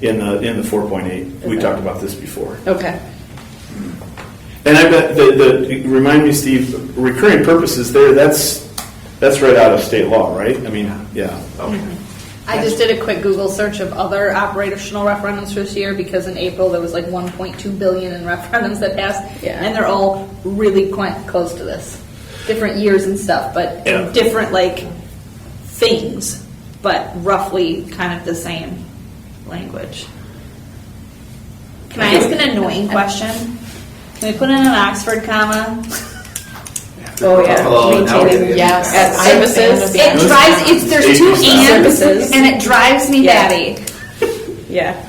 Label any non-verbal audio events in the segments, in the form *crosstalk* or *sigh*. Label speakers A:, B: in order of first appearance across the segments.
A: in the, in the 4.8. We
B: Okay.
A: talked about this before.
B: Okay.
A: And I bet the, the, remind me, Steve, recurring purposes there, that's, that's right out of state law, right? I mean, yeah, okay.
B: I just did a quick Google search of other operational referendums for this year because in April there was like 1.2 billion in *laughs* referendums that passed,
C: Yeah.
B: and they're all really quite close to this, different years and stuff, but
A: Yeah.
B: different like things, but roughly kind of the same language. Can I ask an annoying question? Can we put in an Oxford comma?
D: Hello,
C: Oh, yeah,
D: now we're
C: maintaining,
D: getting-
C: yes.
D: At
C: services.
B: It drives. It's there's two
C: Services.
B: ands, and it drives me
C: Yeah.
B: batty.
C: Yeah.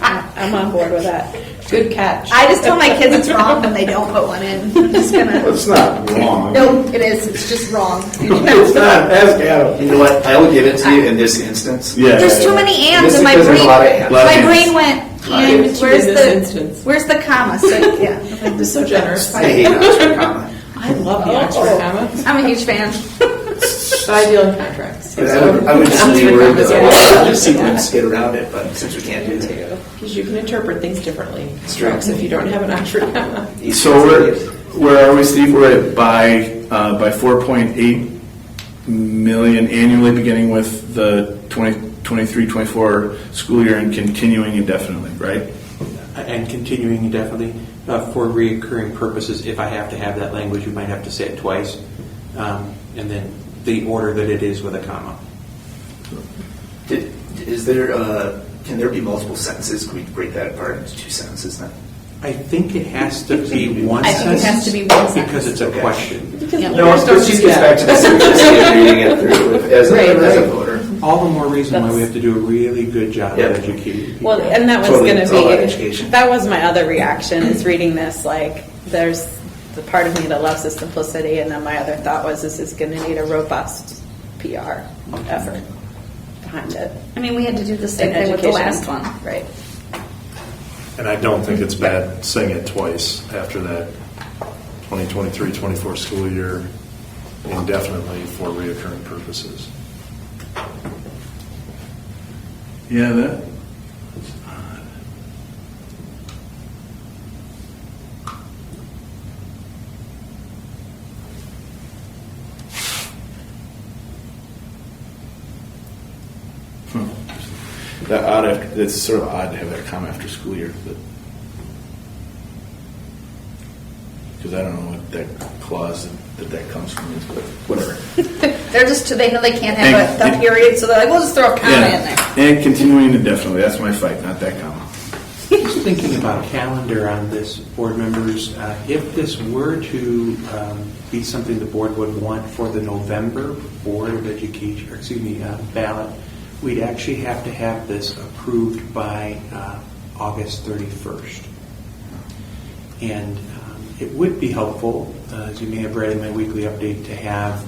C: I'm on board with that. Good catch.
B: I just tell my kids it's wrong when they don't put one in. I'm just gonna.
A: That's not wrong.
B: No, it is. It's just wrong.
A: *laughs* It's not, ask Adam.
D: You know what? I will give it to you in this instance.
A: Yeah.
B: There's too many ands,
D: Just
B: and my
D: because
B: brain.
D: there's a lot of ands.
A: Lot of
B: My
A: ands.
B: brain went.
D: Lot of
B: and
C: ands.
B: where's
C: In this
B: the
C: instance.
B: where's the comma? So yeah,
C: so generous. Oh.
D: I hate Oxford comma.
C: I love the Oxford comma,
B: I'm a huge fan.
C: but I deal in contracts.
D: But I would, I would just
C: I'm
D: leave
C: doing
D: word
C: commas,
D: the
C: yeah.
D: just see if we can skate around it, but since we can't do that.
C: Because you can interpret things differently.
D: true.
C: Strokes if you don't have an Oxford comma.
A: So we're, where are we, Steve? We're at by, uh, by 4.8 million annually, beginning with the 2023, 24 school year and continuing indefinitely, right?
E: And continuing indefinitely, uh, for reoccurring purposes, if I have to have that language, you might have to say it twice, um, and then the order that it is with a comma.
D: Did, is there, uh, can there be multiple sentences? Can we break that apart into two sentences then?
E: I think it has *laughs* to be one
B: I
E: sentence.
B: think it has to be one
E: Because it's a
D: Okay.
E: question.
D: No,
C: Lawyers don't
D: it's just
C: do
D: gets
C: that.
D: back
C: *laughs*
D: to this, reading it through with- as
C: Right,
D: a, as a
C: right.
D: voter.
E: All the more reason why we have to do a really good job
D: Yeah.
E: of educating people.
C: Well, and that was
D: Totally,
C: going
D: it's all about
C: to be,
D: education.
C: that was my other reaction, is reading this, like, there's the part of me that loves the simplicity, and then my other thought was, this is going to need a robust PR effort behind it.
B: I mean, we had to do the same thing with the last one.
C: Right.
F: And I don't think it's bad saying it twice after that 2023-24 school year indefinitely for reoccurring purposes.
A: Yeah, that, Hmm. that odd, after- it's sort of odd to have that come after school year, but. Because I don't know what that clause that that comes from is, but whatever.
B: They're just too, they know they can't have a,
A: Thank
B: the
A: you.
B: period, so they're like, we'll just throw a comma in there.
A: Yeah, And continuing indefinitely, that's my fight, not that comma.
E: Just thinking about calendar on this, board members, uh, if this were to um, be something the board would want for the November Board of Education, or excuse me, uh, ballot, we'd actually have to have this approved by uh, August 31st. And um, it would be helpful, uh, as you may have read in my weekly update, to have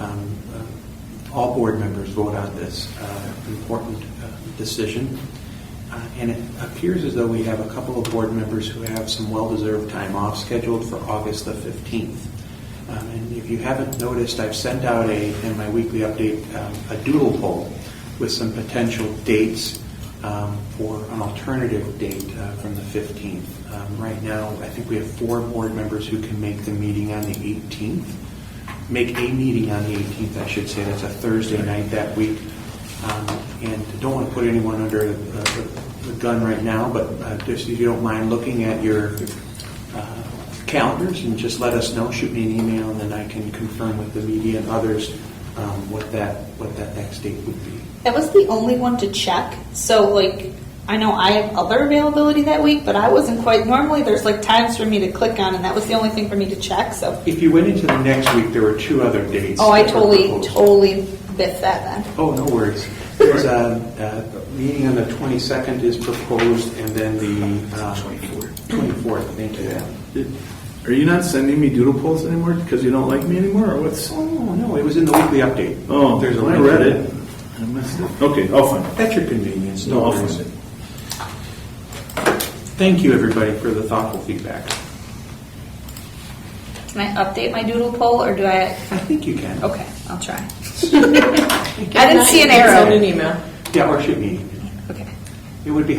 E: um, uh, all board members vote on this uh, important uh, decision. Uh, And it appears as though we have a couple of board members who have some well-deserved time off scheduled for August the 15th. Um, And if you haven't noticed, I've sent out a, in my weekly update, um, a doodle poll with some potential dates um, for an alternative date uh, from the 15th. Um, Right now, I think we have four board members who can make the meeting on the 18th, make a meeting on the 18th, I should say, that's a Thursday night that week. Um, And don't want to put anyone under uh, the the gun right now, but uh, just if you don't mind looking at your uh, calendars and just let us know, shoot me an email, and then I can confirm with the media and others um, what that, what that next date would be.
B: That was the only one to check. So like I know I have other availability that week, but I wasn't quite normally there's like times for me to click on and that was the only thing for me to check. So
E: If you went into the next week, there were two other dates.
B: Oh, I
E: that were
B: totally
E: proposed.
B: totally biffed that then.
E: Oh, no worries. There's a, a meeting on the 22nd is proposed, and then the. 24th. 24th, thank you.
A: Are you not sending me doodle polls anymore because you don't like me anymore, or what's?
E: Oh, no, it was in the weekly update.
A: Oh,
E: There's a
A: I
E: link.
A: read it. I missed it. Okay, I'll find it.
E: That's your convenience,
A: No,
E: no
A: I'll find
E: worries.
A: it.
E: Thank you, everybody, for the thoughtful feedback.
B: Can I update my doodle poll or do I
E: I think you can.
B: Okay, I'll try. I didn't see an arrow.
C: Send an email.
E: Yeah, or shoot me.
B: Okay.
E: It would be